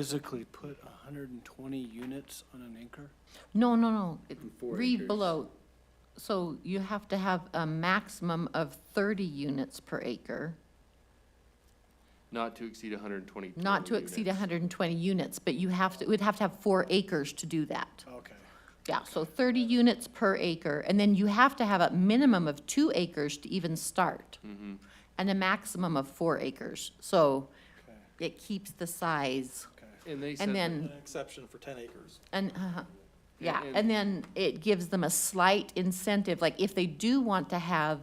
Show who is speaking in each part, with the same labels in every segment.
Speaker 1: physically put hundred and twenty units on an acre?
Speaker 2: No, no, no. It-
Speaker 3: Four
Speaker 2: Read
Speaker 3: acres.
Speaker 2: below. So you have to have a maximum of 30 units per acre,
Speaker 3: Not to exceed hundred and twenty.
Speaker 2: not to exceed 120 units, but you have to, we'd have to have four acres to do that.
Speaker 1: Okay.
Speaker 2: Yeah, so 30 units per acre, and then you have to have a minimum of two acres to even start,
Speaker 3: Mm-hmm.
Speaker 2: and a maximum of four acres. So
Speaker 1: Okay,
Speaker 2: it keeps the size,
Speaker 1: okay.
Speaker 3: And they said.
Speaker 2: and
Speaker 3: that-
Speaker 2: then.
Speaker 4: An exception for ten acres.
Speaker 2: And, uh-huh. yeah,
Speaker 3: and-
Speaker 2: and then it gives them a slight incentive, like if they do want to have,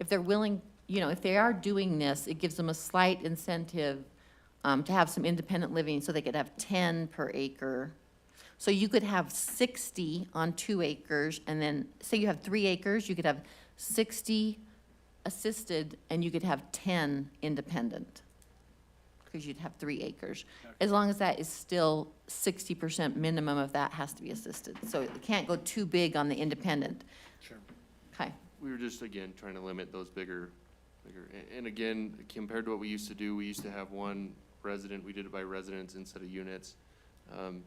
Speaker 2: if they're willing, you know, if they are doing this, it gives them a slight incentive um, to have some independent living, so they could have ten per acre. So you could have sixty on two acres, and then, say you have three acres, you could have sixty assisted, and you could have ten independent, because you'd have three acres. As long as that is still sixty percent minimum of that has to be assisted, so it can't go too big on the independent.
Speaker 1: Sure.
Speaker 2: Okay,
Speaker 3: We were just, again, trying to limit those bigger, bigger, a- and again, compared to what we used to do, we used to have one resident, we did it by residents instead of units. Um,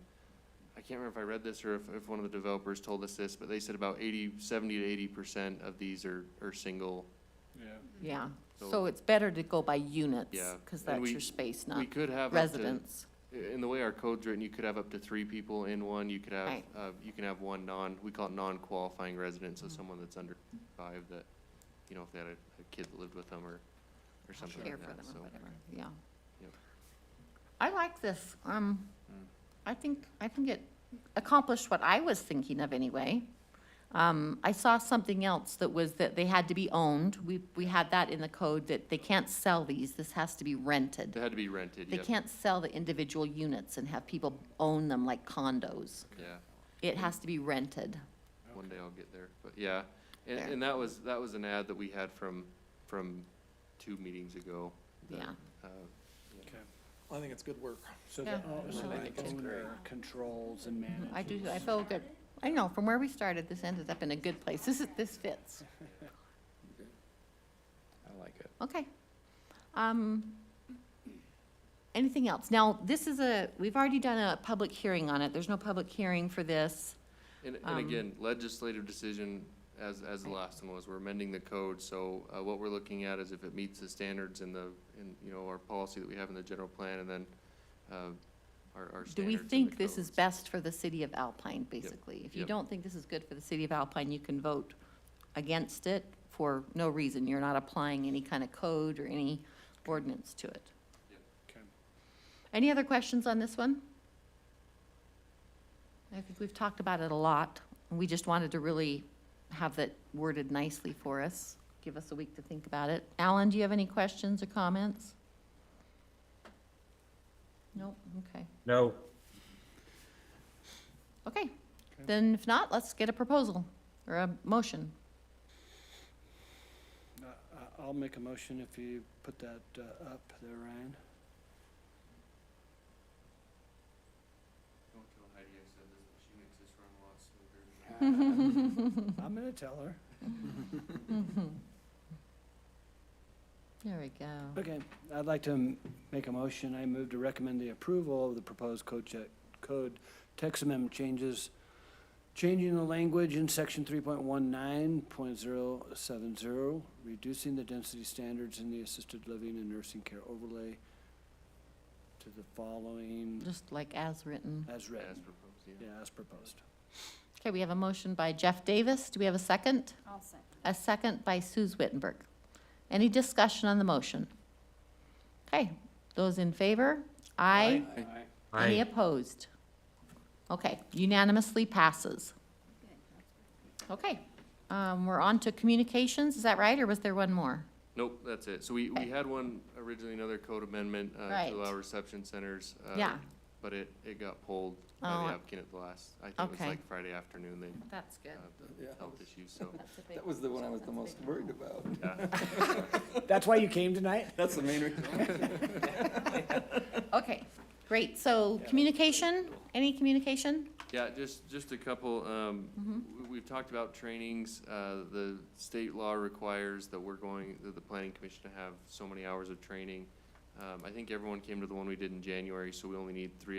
Speaker 3: I can't remember if I read this or if, if one of the developers told us this, but they said about eighty, seventy to eighty percent of these are, are single.
Speaker 1: Yeah,
Speaker 2: yeah,
Speaker 3: So-
Speaker 2: so it's better to go by units.
Speaker 3: Yeah,
Speaker 2: Because
Speaker 3: and
Speaker 2: that's
Speaker 3: we-
Speaker 2: your space,
Speaker 3: We
Speaker 2: not
Speaker 3: could have up to,
Speaker 2: residence.
Speaker 3: in the way our code's written, you could have up to three people in one, you could have,
Speaker 2: Right.
Speaker 3: uh, you can have one non, we call it non-qualifying resident,
Speaker 2: Mm-hmm.
Speaker 3: so someone that's under five that, you know, if they had a, a kid that lived with them or, or something
Speaker 2: care
Speaker 3: like
Speaker 2: for
Speaker 3: that,
Speaker 2: them
Speaker 3: so.
Speaker 2: or whatever, yeah.
Speaker 3: Yep.
Speaker 2: I like this. Um,
Speaker 3: Mm.
Speaker 2: I think, I think it accomplished what I was thinking of anyway. Um, I saw something else that was that they had to be owned. We, we had that in the code that they can't sell these. This has to be rented.
Speaker 3: They had to be rented,
Speaker 2: They
Speaker 3: yep,
Speaker 2: can't sell the individual units and have people own them like condos.
Speaker 3: yeah,
Speaker 2: It has to be rented.
Speaker 3: one day I'll get there, but yeah. And,
Speaker 2: There.
Speaker 3: and that was, that was an ad that we had from, from two meetings ago. that,
Speaker 2: Yeah.
Speaker 3: uh,
Speaker 1: okay.
Speaker 4: I think it's good work.
Speaker 1: So
Speaker 2: Yeah.
Speaker 1: the o- so
Speaker 4: I
Speaker 1: the
Speaker 4: think it's great.
Speaker 1: owner controls and manages.
Speaker 2: Mm-hmm. I do, I feel good. I know, from where we started, this ended up in a good place. This is, this fits.
Speaker 5: I like it.
Speaker 2: Okay. Um, anything else? Now, this is a, we've already done a public hearing on it. There's no public hearing for this.
Speaker 3: And,
Speaker 2: Um,
Speaker 3: and again, legislative decision, as, as the last one was, we're amending the code, so, uh, what we're looking at is if it meets the standards in the, in, you know, our policy that we have in the general plan, and then, uh, our, our standards
Speaker 2: Do we
Speaker 3: in the
Speaker 2: think this is
Speaker 3: codes.
Speaker 2: best for the city of Alpine, basically? If you
Speaker 3: Yep.
Speaker 2: don't think this is good for the city of Alpine, you can vote against it for no reason. You're not applying any kind of code or any ordinance to it.
Speaker 1: Okay.
Speaker 2: Any other questions on this one? I think we've talked about it a lot. We just wanted to really have that worded nicely for us. Give us a week to think about it. Alan, do you have any questions or comments? Nope, okay.
Speaker 6: No,
Speaker 2: Okay, then if not, let's get a proposal or a motion.
Speaker 1: Uh, I- I'll make a motion if you put that uh, up there, Ryan.
Speaker 3: Don't tell Heidi I said this, but she makes this run a lot smoother.
Speaker 1: I'm gonna tell her.
Speaker 2: There we go.
Speaker 1: Okay, I'd like to m- make a motion. I move to recommend the approval of the proposed code check, code text amendment changes, changing the language in section three point one nine point zero seven zero, reducing the density standards in the assisted living and nursing care overlay to the following
Speaker 2: Just like as written.
Speaker 1: as
Speaker 3: As
Speaker 1: read,
Speaker 3: proposed, yeah.
Speaker 1: yeah, as proposed.
Speaker 2: Okay, we have a motion by Jeff Davis. Do we have a second?
Speaker 7: I'll second.
Speaker 2: A second by Suze Wittenberg. Any discussion on the motion? Okay, those in favor? Aye. Any
Speaker 6: I,
Speaker 2: opposed? Okay, unanimously passes. Okay, um, we're on to communications, is that right, or was there one more?
Speaker 3: Nope, that's it. So we,
Speaker 2: Okay.
Speaker 3: we had one originally, another code amendment, uh,
Speaker 2: Right.
Speaker 3: to allow reception centers. uh,
Speaker 2: Yeah.
Speaker 3: But it, it got pulled by
Speaker 2: Oh,
Speaker 3: the
Speaker 2: I-
Speaker 3: applicant at the last, I think it was
Speaker 2: Okay.
Speaker 3: like Friday afternoon, they,
Speaker 2: That's good.
Speaker 3: uh, the health issues, so.
Speaker 5: That was the one I was the most worried about.
Speaker 1: That's why you came tonight?
Speaker 5: That's the main reason.
Speaker 2: Okay, great, so communication, any communication?
Speaker 3: Yeah, just, just a couple, um, we- we've talked about trainings, uh, the state law requires that we're going, that the planning commission to have so many hours of training. Um, I think everyone came to the one we did in January, so we only need three